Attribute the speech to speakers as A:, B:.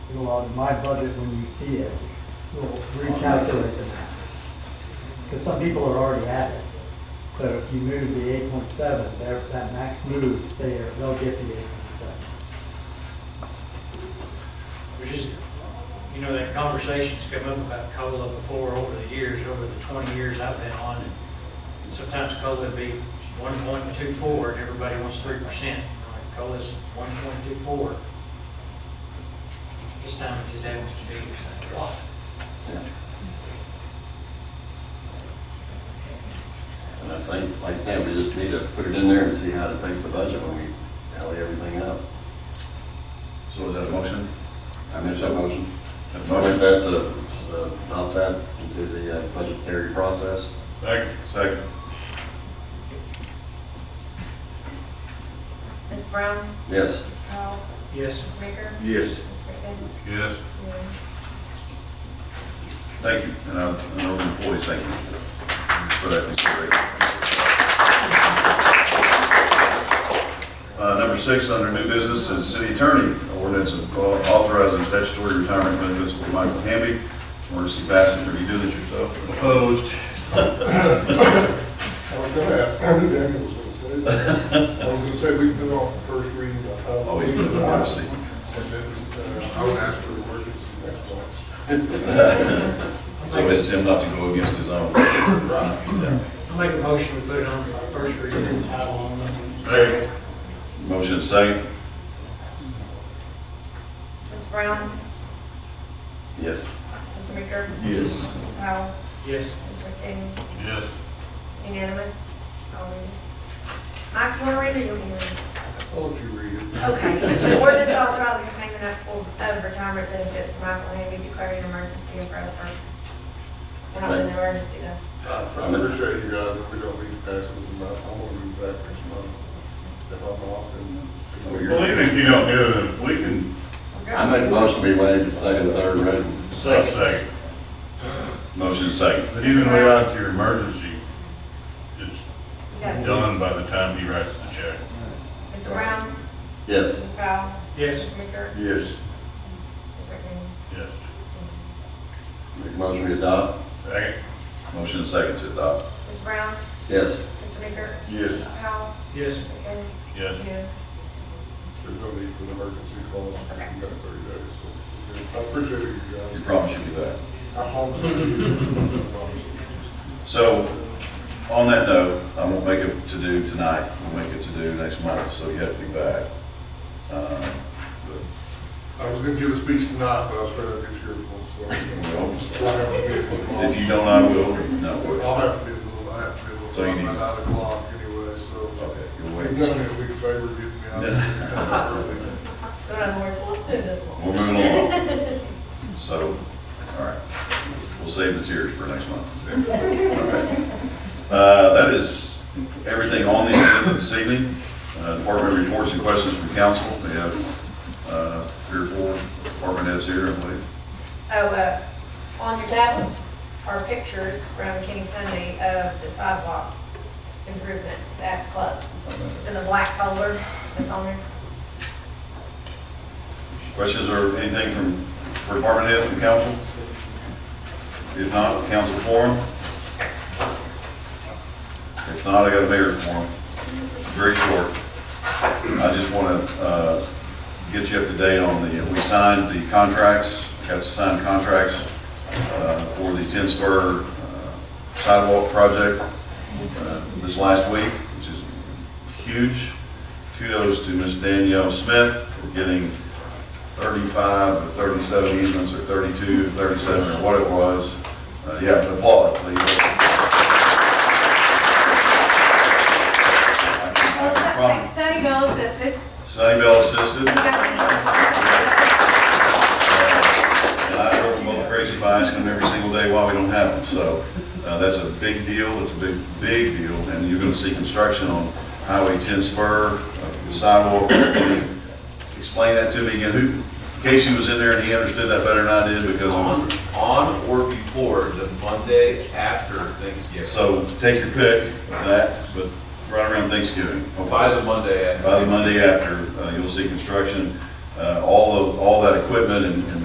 A: well, in my budget, when you see it, we'll recalculate the max. Because some people are already at it. So if you move the eight point seven, there, that max moves there, they'll get the eight point seven.
B: We're just, you know, that conversation's come up about COLA before over the years, over the twenty years I've been on. and Sometimes COLA would be one point two four and everybody wants three percent. COLA's one point two four. This time it just happens to be a lot.
C: And I think, like, yeah, we just need to put it in there and see how it affects the budget when we tally everything else.
D: So is that a motion?
C: I make that motion.
D: That
C: I make
D: motion.
C: that, uh, uh, adopt that into the uh, budgetary process.
D: Second. Second.
E: Ms. Brown?
C: Yes.
E: Ms. Powell?
B: Yes,
E: Ms. Baker?
D: Yes.
E: Ms. Rickman?
D: Yes.
E: Yes.
D: Thank you, and I, and all the employees, thank you for that consideration. Uh, number six, under new business, is city attorney, ordinance of uh, authorizing statutory retirement benefits for Michael Hamby, emergency passenger, you do this yourself? Opposed.
F: I was gonna, I knew Daniel was gonna say that. I was gonna say, we can do it off the first reading. but I don't-
G: Oh,
D: Always put Oh, it on the seat.
F: And then, uh, I would ask for emergency next month.
D: So it's him not to go against his own. Right, exactly.
B: I make a motion to put it on the first reading, title only.
D: Motion second?
E: Ms. Brown?
D: Yes.
E: Mr. Baker?
D: Yes.
E: Ms. Powell?
B: Yes,
E: Ms. Rickman?
D: Yes.
E: It's unanimous. I'll read it. Mike, you want to read it? You'll be reading.
D: Hold you read it.
E: Okay. The ordinance authorizing payment of full- of retirement benefits to Michael Hamby declaring an emergency and for other purposes. We're not in an emergency though.
F: I appreciate you guys, if we don't need to pass it tonight, I'm gonna be back next month. If I'm off, then.
D: Oh, you're-
G: Well, even if you don't do it, we can,
C: I make a motion we waive the second, and third reading.
G: say,
D: Motion second?
G: but even without your emergency, it's
E: You got it.
G: done by the time he writes the check.
E: Mr. Brown?
C: Yes.
E: Ms. Powell?
B: yes.
E: Mr. Baker?
D: Yes.
E: Ms. Rickman?
G: Yes.
E: It's unanimous.
C: Make a motion we adopt.
G: Second?
D: Motion second to adopt.
E: Ms. Brown?
C: Yes.
E: Mr. Baker?
D: Yes.
E: Ms. Powell?
B: Yes.
E: Ms. Rickman?
G: Yes.
E: Yes.
F: There's no need for an emergency clause, you got thirty days, so. I appreciate you
D: You
F: guys.
D: promise you'll be back.
F: I promise you. I promise you.
D: So, on that note, I won't make it to do tonight, we'll make it to do next month, so you have to be back. Um,
F: I was gonna give a speech tonight, but I was trying to get your one, so. I'll have to
D: but
F: be-
D: If you don't, I will, no,
F: I'll have to be, a little- I have to be a
D: So you
F: little,
D: need-
F: by nine o'clock anyway, so.
D: okay, you'll
F: You've
D: wait.
F: done me a big favor getting me out of here.
E: So in other words, let's move this one.
D: We're moving along. So, all right, we'll save the tears for next month. Okay. Uh, that is everything on the agenda this evening. Uh, department reports and questions from council, we have, uh, three or four department heads here, I believe.
E: Oh, uh, on your tablets are pictures from Kenny Sunday of the sidewalk improvements at the club. It's in the black folder that's on there.
D: Questions or anything from, for department heads from council? If not, council forum? If not, I got a mayor's forum, very short. I just want to, uh, get you up to date on the, we signed the contracts, got to sign contracts, uh, for the Ten Spur uh, sidewalk project, uh, this last week, which is huge. Kudos to Ms. Danielle Smith for getting 35 or 37 easements, or 32, 37, or what it was. Uh, Yeah, applaud, please. I can promise.
H: Sunny Bill assisted.
D: Sunny Bell assisted,
H: We got me.
D: and I drove them both crazy by asking them every single day why we don't have them. So uh, that's a big deal, it's a big, big deal, and you're going to see construction on Highway 10 spur, uh, sidewalk. Explain that to me again, who, Casey was in there and he understood that better than I did because
I: On,
D: I'm,
I: on or before the Monday after Thanksgiving.
D: so take your pick, of that, but right around Thanksgiving.
I: By the Monday after.
D: By the Monday after, uh, you'll see construction, uh, all of, all that equipment and and